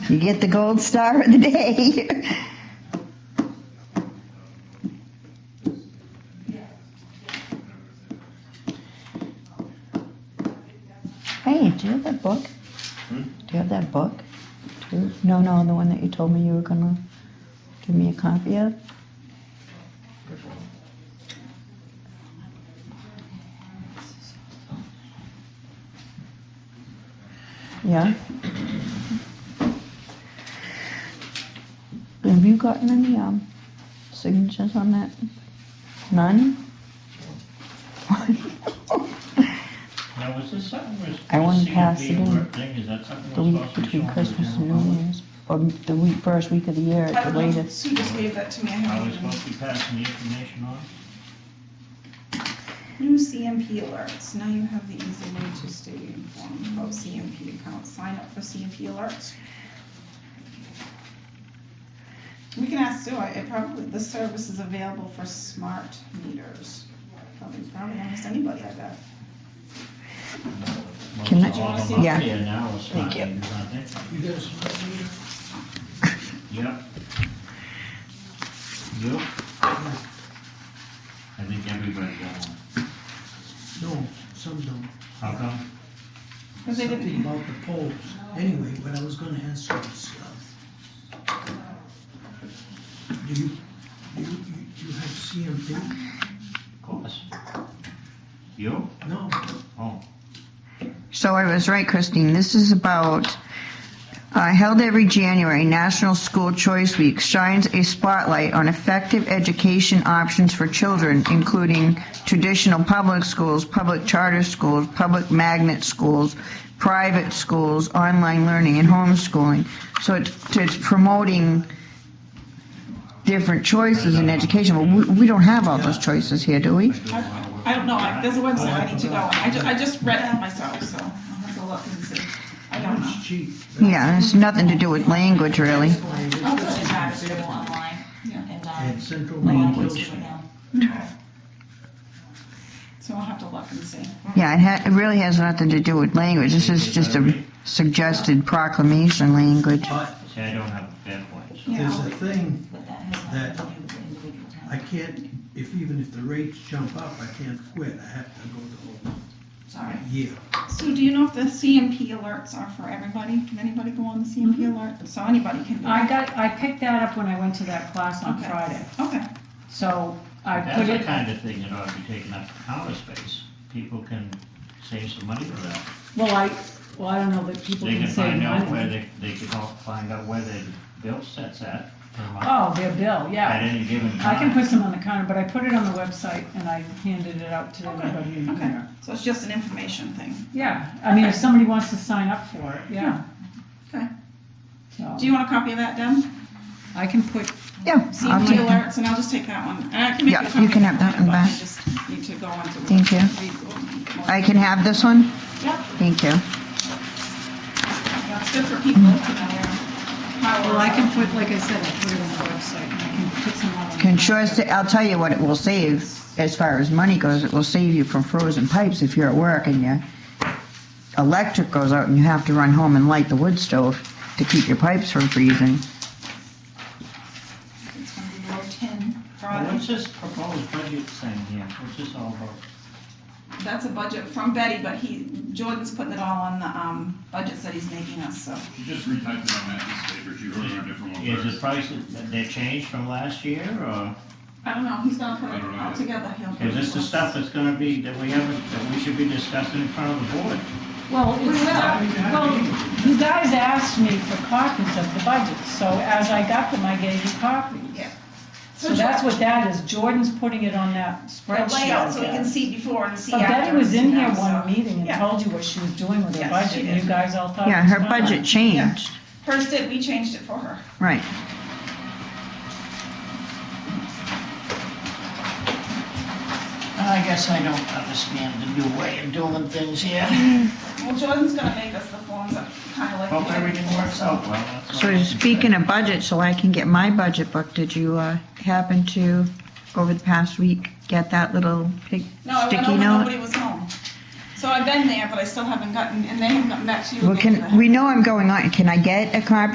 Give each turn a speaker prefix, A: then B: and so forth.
A: You get the gold star of the day. Hey, do you have that book?
B: Hmm?
A: Do you have that book? too? No, no, the one that you told me you were gonna give me a copy of?
B: Which one?
A: Yeah? Have you gotten any, um, signatures on that? None?
C: Now, was this something was?
A: I wouldn't
C: the
A: pass it
C: CMP
A: in
C: work Thing, is that something
A: The
C: we're
A: week
C: supposed to
A: between
C: be showing to the
A: Christmas and
C: general
A: New
C: public?
A: Year's, or the week, first week of the year
D: I
A: at
D: don't
A: the
D: know.
A: latest.
D: Sue just gave that to me, I
B: Oh,
C: Are we
D: haven't
C: supposed
D: even.
C: to be passing the information on?
D: New CMP alerts, now you have the easy way to stay informed about CMP accounts, sign up for CMP alerts. We can ask Sue, I, it probably, this service is available for smart meters, probably, probably almost anybody, I bet.
A: Can I-
C: Most all of them up
A: yeah.
C: there now are smart
A: Thank you.
C: meters, aren't they?
B: You got a smart meter?
C: Yep. Yep. I think everybody got one.
B: No, some don't.
C: How come?
D: Cause they didn't,
B: Something about the polls. Anyway, what I was gonna ask you is, uh, do you, do you, you- you have CMP?
C: Of course. You?
B: No,
C: Oh,
A: So I was right, Christine. This is about uh, held every January, National School Choice Week shines a spotlight on effective education options for children, including traditional public schools, public charter schools, public magnet schools, private schools, online learning, and homeschooling. So it's, it's promoting different choices in education. Well, we, we don't have all those choices here, do we?
C: I do a lot of work.
D: I don't know, I- there's a website I need to go on, I ju- I just read it myself, so I'll have to look and see, I don't know.
B: it's cheap.
A: Yeah, it's nothing to do with language, really.
D: I'll put it back.
E: It's available online and, um,
B: And Central
E: like on
B: Maine
E: Google
B: Hill Street.
E: now.
D: So I'll have to look and see.
A: Yeah, it, ha- it really has nothing to do with language. This is just a suggested proclamation language.
B: But
C: See, I don't have a fair point, so.
D: Yeah,
B: there's
D: I'll
B: a thing,
E: But that has nothing to do with individual
B: I
E: town.
B: can't, if, even if the rates jump up, I can't quit, I have to go the whole
E: Sorry.
B: year.
D: So do you know if the CMP alerts are for everybody? Can anybody go on the
A: Mm-hmm.
D: CMP alert? So anybody can. do
F: I
D: it.
F: got, I picked that up when I went to that class on
D: Okay.
F: Friday,
D: Okay,
F: so I
C: That's
F: put
C: the
F: it,
C: kind of thing that ought to be taken up counter space. People can save some money for that.
F: well, I, well, I don't know that people
C: They
F: can
C: can
F: say
C: find out where
F: mine.
C: they, they can all find out where their bill sets at per month
F: Oh, their bill,
C: at
F: yeah.
C: any given
F: I can
C: time.
F: put some on the counter, but I put it on the website and I handed it out to
D: Okay,
F: everybody in
D: okay.
F: there.
D: so it's just an information thing.
F: Yeah, I mean, if somebody wants to sign up for it, yeah.
D: Okay.
F: So,
D: Do you want a copy of that, Deb?
F: I can put,
A: Yeah, I'll
D: CMP
A: take that.
D: alerts, and I'll just take that one. And I can make
A: Yeah,
D: a
A: you
D: copy
A: can
D: of
A: have that one
D: but
A: back.
D: I just need to go on to.
A: Thank you. I can have this one?
D: Yeah,
A: Thank you.
D: yeah, it's good for people to know how.
F: well, I can put, like I said, I put it on the website and I can put some on the.
A: Can sure,
F: counter.
A: sa- I'll tell you what it will save as far as money goes. It will save you from frozen pipes if you're at work and your electric goes out and you have to run home and light the wood stove to keep your pipes from freezing.
D: It's gonna be below ten
C: Well,
D: Friday.
C: What's this proposed budget thing here? What's this all about?
D: That's a budget from Betty, but he, Jordan's putting it all on the, um, budgets that he's making us, so.
G: You just retyped it on Matt's paper, you wrote on a different one
C: Is the
G: first.
C: price, that they changed from last year or
D: I don't know, he's gonna put
G: I
D: it
G: don't know.
D: all together. He'll put
C: is this
D: it
C: the
D: all-
C: stuff that's gonna be, that we haven't, that we should be discussing in front of the board?
F: Well, it's, uh, well, you guys asked me for copies of the budget, so as I got them, I gave you copies.
D: Yeah.
F: So that's what that is, Jordan's putting it on that
D: The
F: spreadsheet.
D: layout, so we can
F: again.
D: see before and see
F: But
D: after.
F: Betty was in
D: and
F: here
D: now,
F: one
D: so-
F: meeting and
D: Yeah.
F: told you what she was doing with her
D: Yes, she
F: budget, and
D: did.
F: you guys all thought. it
A: Yeah,
F: was
A: her
F: fine.
A: budget changed.
D: Hers did, we changed it for her.
A: Right.
H: I guess I don't understand the new way of doing things here.
D: Well, Jordan's gonna make us the forms up, kinda like.
C: Hope
D: the other
C: everything
D: forms,
C: works
D: so-
C: out well. that's all I
A: So
C: can
A: speaking
C: say.
A: of budget, so I can get my budget book, did you uh, happen to, over the past week, get that little pig
D: No, I went
A: sticky
D: over,
A: note?
D: nobody was home. So I've been there, but I still haven't gotten, and they haven't gotten back to you.
A: Well,
D: again.
A: can, we know I'm going on, can I get a copy